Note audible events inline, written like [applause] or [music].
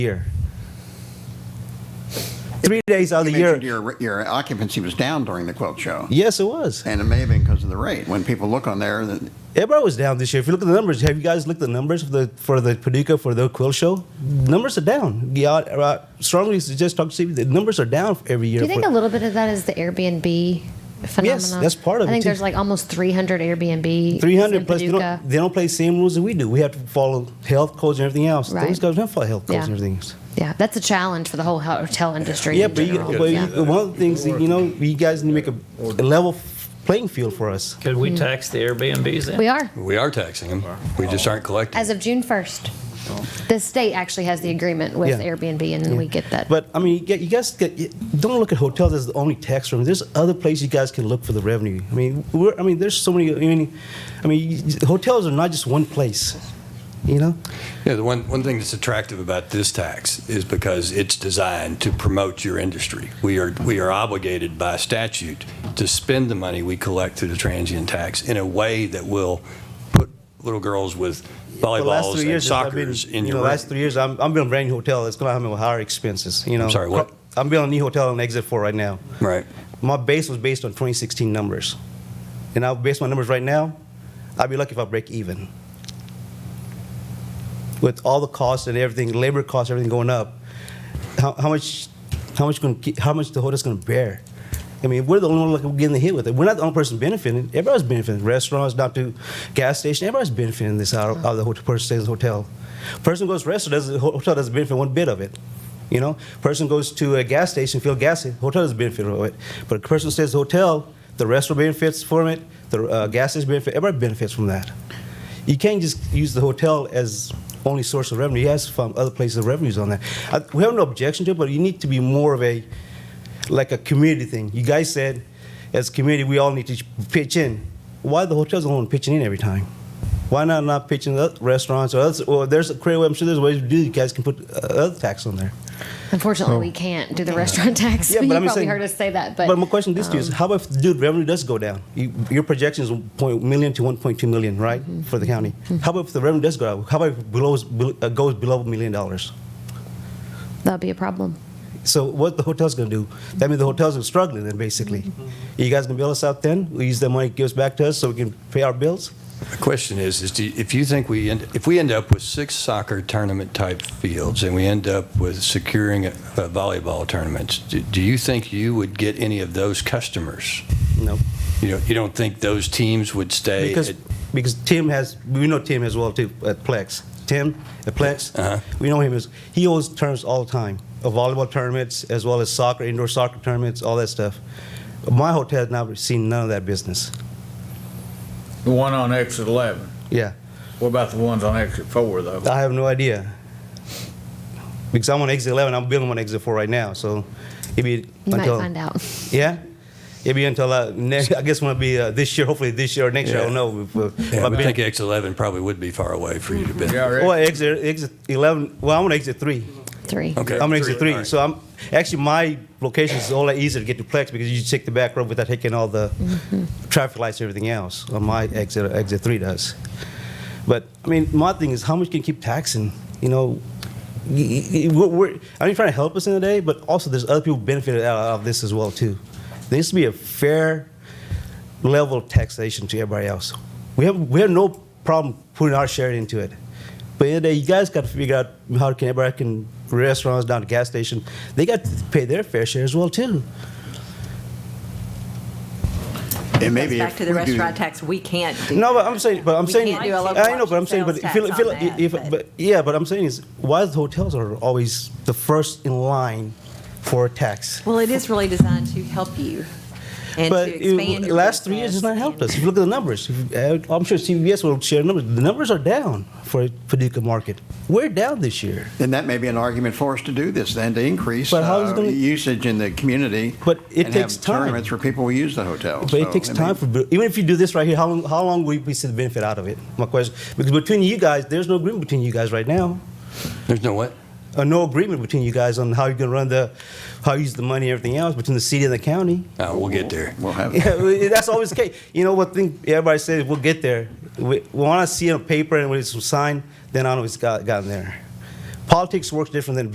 year. Three days out of You the year. mentioned your, your occupancy was down during the quilt show, Yes, it was. and it may have been because of the rate. When people look on there, then Everybody was down this year. If you look at the numbers, have you guys looked at the numbers for the for the Paducah for the quill show? Numbers are down. Yeah, I strongly suggest talk to Steve. The numbers are down every year. Do you think for- a little bit of that is the Airbnb phenomenon? that's part of I it, think too. there's like almost 300 Airbnb. 300 plus, they Paducah. don't, they don't play the same rules that we do. We have to follow health codes and everything else. Right. Those guys don't follow health codes Yeah. and everything else. Yeah, that's a challenge for the whole hotel industry. Yeah, in but, you, general. but yeah. you, one of the things that, you know, you guys need to make a, a level playing field for us. Could we tax the Airbnbs then? we are. We are taxing them. We just aren't collecting. As of June 1st, the state actually has the agreement with Yeah. Airbnb, and we get that. But I mean, you, get, you guys get, you don't look at hotels as the only tax revenue. There's other places you guys can look for the revenue. I mean, we're, I mean, there's so many. I mean, I mean, you- hotels are not just one place. You know, Yeah, the one, one thing that's attractive about this tax is because it's designed to promote your industry. We are, we are obligated by statute to spend the money we collect through the transient tax in a way that will put little girls with the last volleyballs three and years, I've been, soccers in you know, your room. last three years, I'm, I'm building a brand new hotel. It's gonna have me with higher expenses. You know, sorry, what? I'm building a new hotel on exit four right now. Right. My base was based on 2016 numbers, and I'll base my numbers right now. I'd be lucky if I break even. With all the costs and everything, labor costs, everything going up, how, how much, how much, gonna, keep- how much the hotel's going to bear? I mean, we're the only one like, getting hit with it. We're not the only person benefiting. Everybody's benefiting. Restaurants, down to gas station, everybody's benefiting this out of, out of the hotel, person stays in the hotel. Person goes to restaurant, doesn't, hotel doesn't benefit one bit of it. You know, person goes to a gas station, fill gas, hotel doesn't benefit from it. But a person stays at the hotel, the restaurant benefits from it, the uh, gas station benefits, everybody benefits from that. You can't just use the hotel as only source of revenue. You have to find other places of revenues on that. I, we have no objection to it, but you need to be more of a, like a community thing. You guys said, as a community, we all need to pitch in. Why the hotels only pitching in every time? Why not not pitching the restaurants or others? Or there's a creative way. I'm sure there's ways to do. it. You guys can put uh, other tax on there. Unfortunately, we can't do the restaurant tax. Oh. Yeah, but [laughs] you I'm probably saying- heard us say that. But, um, But, my question this to you is, how about if, dude, revenue does go down? You, your projection is 1 million to 1.2 million, right, Mm-hmm. for the county. How about if the revenue does go down? How about if it belows, bel- uh, goes below a million dollars? that'll be a problem. So what the hotel's going to do? That means the hotels are struggling then, basically. Mm-hmm. Are you guys going to bail us out then? We use that money it gives back to us so we can pay our bills? The question is, is do, if you think we end, if we end up with six soccer tournament type fields and we end up with securing uh, volleyball tournaments, do, do you think you would get any of those customers? No. You know, you don't think those teams would stay? Because, at- because Tim has, we know Tim as well, too, at Plex. Tim at Plex, Uh-huh. we know him as, he holds tournaments all the time, uh, volleyball tournaments, as well as soccer, indoor soccer tournaments, all that stuff. My hotel has not seen none of that business. The one on exit 11. Yeah, What about the ones on exit 4, though? I have no idea. Because I'm on exit 11, I'm building on exit 4 right now, so it'd be You might until- find out. Yeah? It'd be until, uh, next, I guess when it'll be uh, this year, hopefully this year or next year, I don't Yeah. know. if, uh, if Yeah, I I've would been- think X11 probably would be far away for you to be. Yeah, Well, right. exit, exit 11, well, I'm on exit 3. Three. Okay. I'm on exit Three, three, all right. so I'm actually my location is all that easier to get to Plex because you take the back road without taking all the traffic lights and everything else. On my exit, exit three does. But I mean, my thing is how much can you keep taxing? You know, y- y- y- we're, we're, I mean, trying to help us in the day, but also there's other people benefited out of this as well too. There needs to be a fair level of taxation to everybody else. We have we have no problem putting our share into it. But in the day, you guys got to figure out how can everybody can restaurants down to gas station. They got to pay their fair share as well too. it may Goes be back if to the we do- restaurant tax, we can't do. No, but I'm saying, but I'm We saying, can't do a local I know, but I'm saying, but if, sales you- if, you- tax on if, that, but yeah, but I'm saying is why the hotels are always the first in line for a tax. Well, it is really designed to help you and but to expand it- your last three years has business not helped and- us. If you look at the numbers, if you- uh, I'm sure CVS will share numbers. The numbers are down for Paducah market. We're down this year. then that may be an argument for us to do this, then to increase But how is it uh, gonna- usage in the community. But it and have takes time. Tournaments where people will use the hotel. But So, it takes I mean, time for even if you do this right here, how long how long will you see the benefit out of it? My question, because between you guys, there's no agreement between you guys right now, There's no what? or no agreement between you guys on how you're gonna run the, how you use the money and everything else between the city and the county. [laughs] Uh, we'll get there. We'll have. Yeah, well, that's always the case. You know what thing everybody says? We'll get there. We, we want to see it on paper and when it's signed, then I know it's got, gotten there. Politics works different than